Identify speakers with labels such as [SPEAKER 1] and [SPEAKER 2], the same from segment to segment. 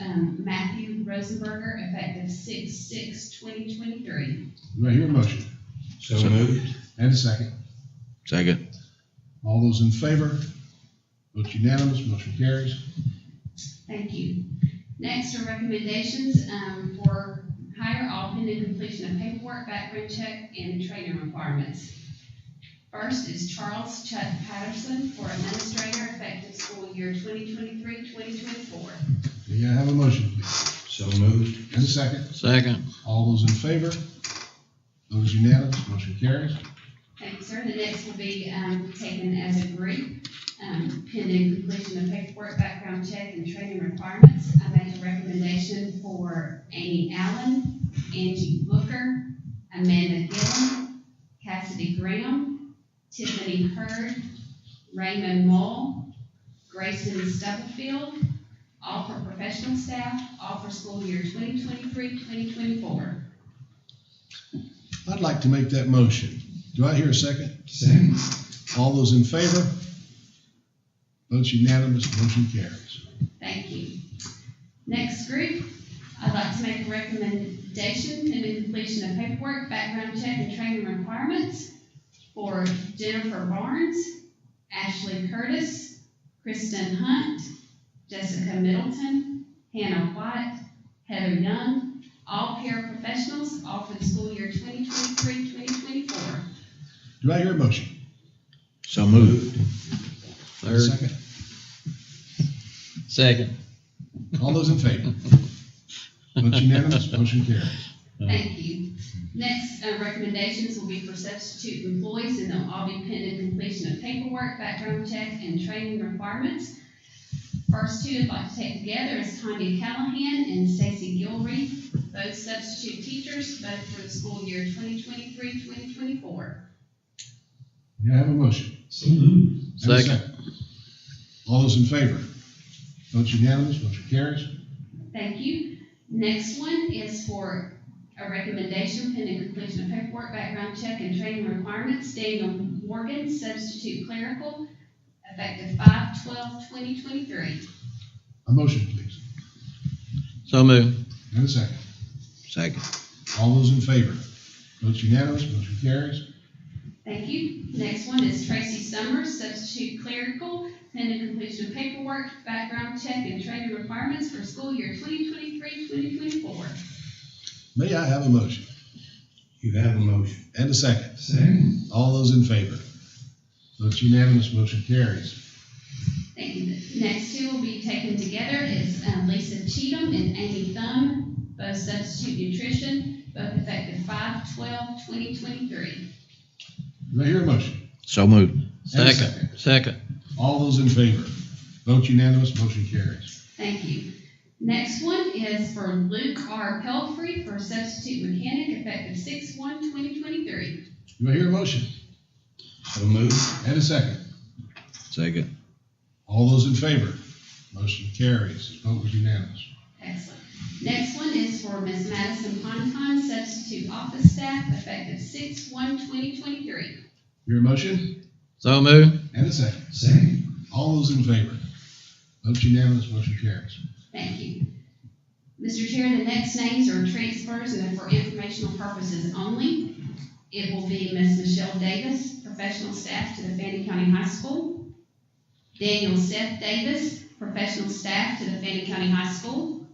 [SPEAKER 1] um, Matthew Rosenberger, effective six, six, twenty twenty-three.
[SPEAKER 2] Do I hear a motion?
[SPEAKER 3] So moved.
[SPEAKER 2] And a second.
[SPEAKER 3] Second.
[SPEAKER 2] All those in favor? Vote unanimous, motion carries.
[SPEAKER 1] Thank you. Next are recommendations, um, for hire, all pending completion of paperwork, background check, and training requirements. First is Charles Chuck Patterson for administrator, effective school year 2023-2024.
[SPEAKER 2] Do you have a motion, please?
[SPEAKER 3] So moved.
[SPEAKER 2] And a second.
[SPEAKER 3] Second.
[SPEAKER 2] All those in favor? Vote is unanimous, motion carries.
[SPEAKER 1] Thank you, sir. The next will be um, taken as a group, um, pending completion of paperwork, background check, and training requirements. I make a recommendation for Amy Allen, Angie Booker, Amanda Gillen, Cassidy Graham, Tiffany Hurd, Raymond Mull, Grayson Stubblefield, all for professional staff, all for school year 2023, 2024.
[SPEAKER 2] I'd like to make that motion. Do I hear a second? All those in favor? Vote unanimous, motion carries.
[SPEAKER 1] Thank you. Next group, I'd like to make a recommendation in the completion of paperwork, background check, and training requirements for Jennifer Barnes, Ashley Curtis, Kristen Hunt, Jessica Middleton, Hannah White, Heather Young, all paraprofessionals, all for the school year 2023, 2024.
[SPEAKER 2] Do I hear a motion?
[SPEAKER 3] So moved.
[SPEAKER 2] And a Second.
[SPEAKER 3] Second.
[SPEAKER 2] All those in favor? Vote unanimous, motion carries.
[SPEAKER 1] Thank you. Next, uh, recommendations will be for substitute employees, and they'll all be pending completion of paperwork, background check, and training requirements. First two I'd like to take together is Tanya Callahan and Stacy Gilreath, both substitute teachers, both for the school year 2023-2024.
[SPEAKER 2] Do I have a motion? And a
[SPEAKER 3] Second.
[SPEAKER 2] All those in favor? Vote unanimous, motion carries.
[SPEAKER 1] Thank you. Next one is for a recommendation pending completion of paperwork, background check, and training requirements. Daniel Morgan, substitute clerical, effective five twelve twenty twenty-three.
[SPEAKER 2] A motion, please.
[SPEAKER 3] So moved.
[SPEAKER 2] And a second.
[SPEAKER 3] Second.
[SPEAKER 2] All those in favor? Vote unanimous, motion carries.
[SPEAKER 1] Thank you. Next one is Tracy Summers, substitute clerical, pending completion of paperwork, background check, and training requirements for school year 2023-2024.
[SPEAKER 2] May I have a motion?
[SPEAKER 3] You have a motion.
[SPEAKER 2] And a second.
[SPEAKER 3] Second.
[SPEAKER 2] All those in favor? Vote unanimous, motion carries.
[SPEAKER 1] Thank you. The Next two will be taken together is um, Lisa Cheatham and Amy Thumb, both substitute nutrition, both effective five twelve twenty twenty-three.
[SPEAKER 2] Do I hear a motion?
[SPEAKER 3] So moved.
[SPEAKER 2] And a
[SPEAKER 3] Second. Second.
[SPEAKER 2] All those in favor? Vote unanimous, motion carries.
[SPEAKER 1] Thank you. Next one is for Luke R. Pelfrey for substitute mechanic effective six one twenty twenty-three.
[SPEAKER 2] Do I hear a motion?
[SPEAKER 3] So moved.
[SPEAKER 2] And a second.
[SPEAKER 3] Second.
[SPEAKER 2] All those in favor? Motion carries. The Vote was unanimous.
[SPEAKER 1] Excellent. Next one is for Ms. Madison Ponton, substitute office staff effective six one twenty twenty-three.
[SPEAKER 2] Your motion?
[SPEAKER 3] So moved.
[SPEAKER 2] And a second. Second. All those in favor? Vote unanimous, motion carries.
[SPEAKER 1] Thank you. Mr. Chair, the next names are transfers and they're for informational purposes only. It will be Ms. Michelle Davis, professional staff to the Fannin County High School. Daniel Seth Davis, professional staff to the Fannin County High School.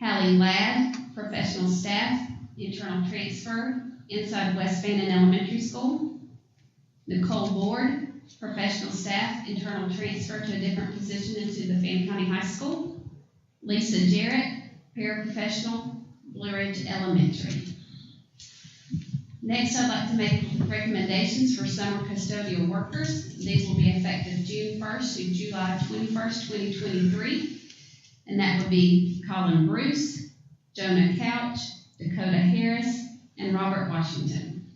[SPEAKER 1] Hallie Ladd, professional staff, internal transfer inside West Fannin Elementary School. Nicole Ward, professional staff, internal transfer to a different position into the Fannin County High School. Lisa Jarrett, paraprofessional, Blue Ridge Elementary. Next, I'd like to make recommendations for summer custodial workers. These will be effective June first through July twenty-first, twenty twenty-three. And that would be Colin Bruce, Jonah Couch, Dakota Harris, and Robert Washington.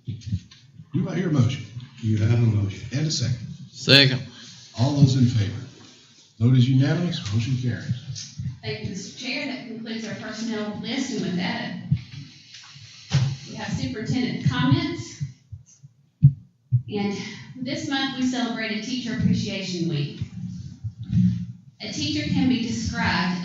[SPEAKER 2] Do I hear a motion?
[SPEAKER 3] You have a motion.
[SPEAKER 2] And a second.
[SPEAKER 3] Second.
[SPEAKER 2] All those in favor? Vote is unanimous, motion carries.
[SPEAKER 1] Thank you, Mr. Chair. That concludes our personnel list, and with that, we have superintendent comments. And this month, we celebrated Teacher Appreciation Week. A teacher can be described